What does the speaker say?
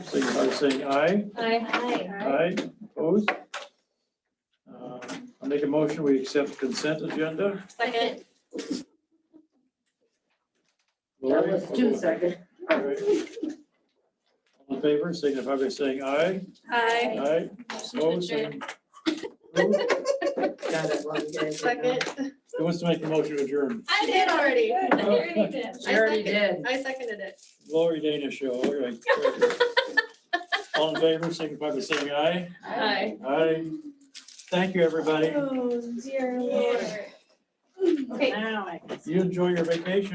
signify by saying aye. Aye. Aye, opposed? Uh, I'll make a motion, we accept consent agenda. Second. That Lori? was two seconds. All right. All in favor, signify by saying aye. Aye. Aye, opposed? Adjourn. saying- Who Got it, one day. Second. who wants to make the motion to adjourn? I did already. I already She already did. I seconded it. Lori Dana Show, all right. All in favor, signify by saying aye. Aye. Aye. Thank you, everybody. Oh, dear lord. Okay. You enjoy your vacation.